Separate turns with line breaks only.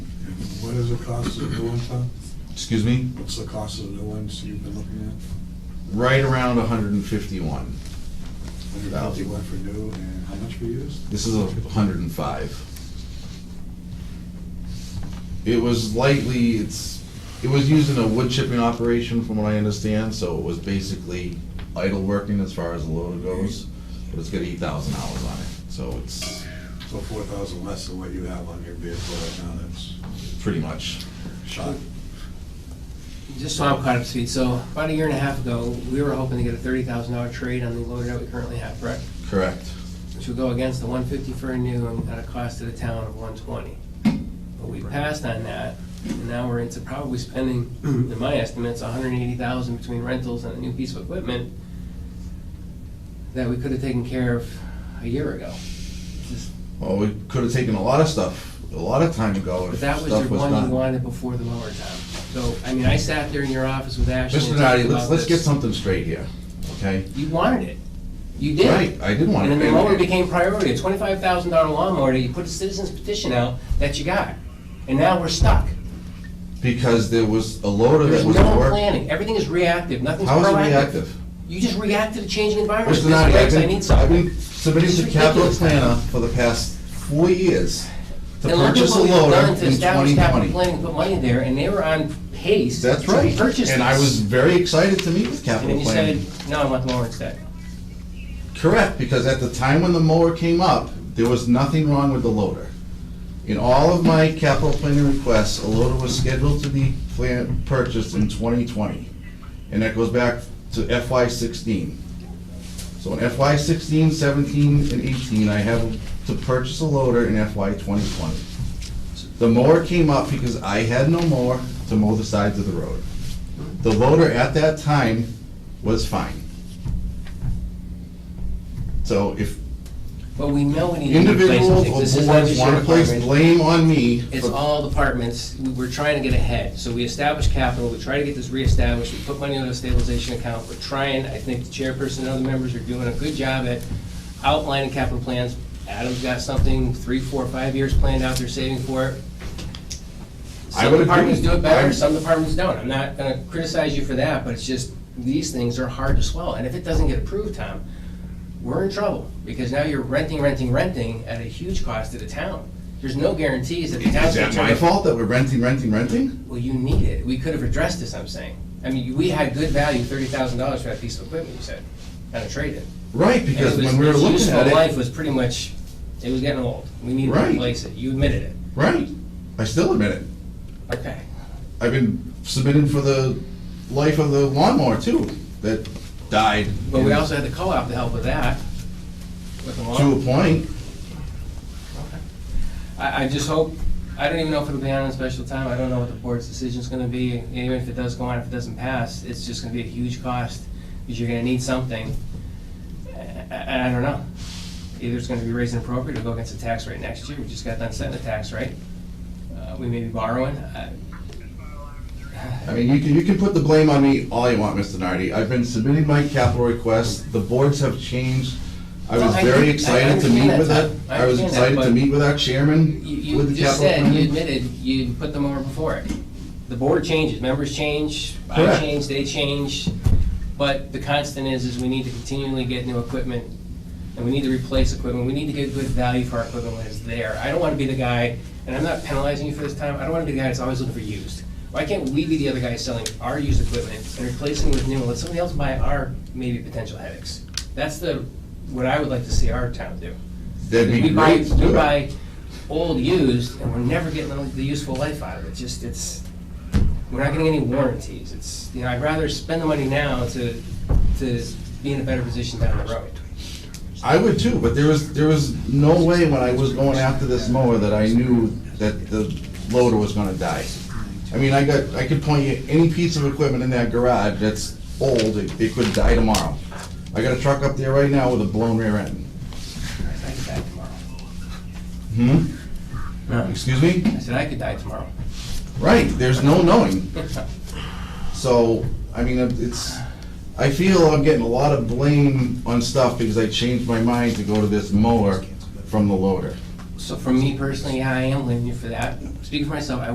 the cost of the new ones, huh?
Excuse me?
What's the cost of the new ones you've been looking
Right around 151.
at? Hundred fifty
Thousand.
one for new, and how much for used?
This is a 105. It was lightly, it's, it was used in a wood chipping operation from what I understand, so it was basically idle working as far as the loader goes, but it's got 8,000 hours on it, so it's
So four thousand less than what you have on your vehicle right now, that's
pretty much,
shot.
Just so I'm caught up to speed, so about a year and a half ago, we were hoping to get a thirty thousand dollar trade on the loader that we currently have, correct?
correct.
Which would go against the one fifty for a new and at a cost to the town of one twenty. But we passed on that, and now we're into probably spending, in my estimates, $180,000 between rentals and a new piece of equipment that we could have taken care of a year ago. Just-
Well, we could have taken a lot of stuff, a lot of time ago if
But
stuff
that was
was
the
done.
one you wanted before the mower time. So, I mean, I sat there in your office with Ashley.
Mr.
and talked
Nardi, let's,
about
let's get
this.
something straight here, okay?
You wanted it. You did.
Right, I did want
And
to.
then the mower became priority, a twenty-five thousand dollar lawnmower that you put a citizen's petition out that you got. And now we're stuck.
Because there was a loader
There's
that was
no
working.
planning. Everything is reactive. Nothing's
How
proactive.
is it reactive?
You just react to the changing environment.
Mr.
This
Nardi, I've
breaks, I
been,
need
I've
something.
been submitting
This
to
is
capital
ridiculous.
planner for the past four years to
And look at
purchase a
what we've
loader
done
in
to establish
twenty
capital
twenty.
planning, and put money there, and they were on pace.
That's
to
right,
Purchase
and I
this.
was very excited to meet with
And then
capital
you
planning.
said, no, I want the mower instead.
Correct, because at the time when the mower came up, there was nothing wrong with the loader. In all of my capital planning requests, a loader was scheduled to be plan, purchased in twenty twenty. And that goes back to FY sixteen. So in FY 16, 17, and eighteen, I have to purchase a loader in FY twenty twenty. The mower came up because I had no mower to mow the sides of the road. The loader at that time was fine. So if
But we know we need to replace some
individuals
things. This
or
is not
boards
just your
want to place
department.
blame on me
It's
for
all departments, We- we're trying to get ahead. So we establish capital, we try to get this reestablished, we put money into a stabilization account. We're trying, I think the chairperson and other members are doing a good job at outlining capital plans. Adam's got something, three, four, five years planned out, they're saving for it.
I
Some
would agree.
departments do it better,
I'm-
some departments don't. I'm not gonna criticize you for that, but it's just, these things are hard to swallow. And if it doesn't get approved, Tom, we're in trouble, because now you're renting, renting, renting at a huge cost to the town. There's no guarantees that the town's
Is
gonna
that
turn.
my fault that we're renting, renting, renting?
Well, you need it, we could have addressed this, I'm saying. I mean, we had good value, thirty thousand dollars for that piece of equipment, you said, on a trade-in.
Right,
And it
because
was-
when we were
its
looking
useful
at
Life
it,
was pretty much, it was getting old, we needed to
Right.
replace it, you admitted it,
right, I still admit it.
okay.
I've been submitting for the life of the lawnmower too, that died.
But we
in-
also had the co-op to help with that, with the
To a
lawn.
point,
I, I just hope, I don't even know if it'll be on a special time, I don't know what the board's decision's gonna be, and even if it does go on, if it doesn't pass, it's just gonna be a huge cost, because you're gonna need something. And I, I don't know, either it's gonna be raised and appropriate or go against the tax rate next year, we just got done setting the tax rate. Uh, we may be borrowing, I,
I mean, you can, you can put the blame on me all you want, Mr. Nardi. I've been submitting my capital requests, the boards have changed. I was
Well, I
very
think- I
excited to
understand
meet
that,
with it,
Tom. I
I was
understand that,
excited to
but
meet with our chairman,
You,
with the
you just
capital
said, you
planning.
admitted, you put them over before it. The board changes, members change, I
Correct.
change, they change, but the constant is, is we need to continually get new equipment, and we need to replace equipment, we need to get good value for our equipment when it's there. I don't wanna be the guy, and I'm not penalizing you for this time, I don't wanna be the guy that's always looking for used. Why can't we be the other guy selling our used equipment and replacing it with new, and let somebody else buy our maybe potential headaches? That's the, what I would like to see our town do.
That'd be
We buy,
great to do
we
it.
buy old used, and we're never getting the useful life out of it, just, it's, we're not getting any warranties, it's, you know, I'd rather spend the money now to, to be in a better position down the road.
I would too, but there was, there was no way when I was going after this mower that I knew that the loader was gonna die. I mean, I got, I could point you any piece of equipment in that garage that's old, it, it could die tomorrow. I got a truck up there right now with a blown rear end.
I could die tomorrow.
Hmm? Excuse me?
I said, I could die tomorrow.
Right, there's no knowing. So, I mean, it's, I feel I'm getting a lot of blame on stuff because I changed my mind to go to this mower from the loader.
So for me personally, yeah, I am blaming you for that, speaking for myself, I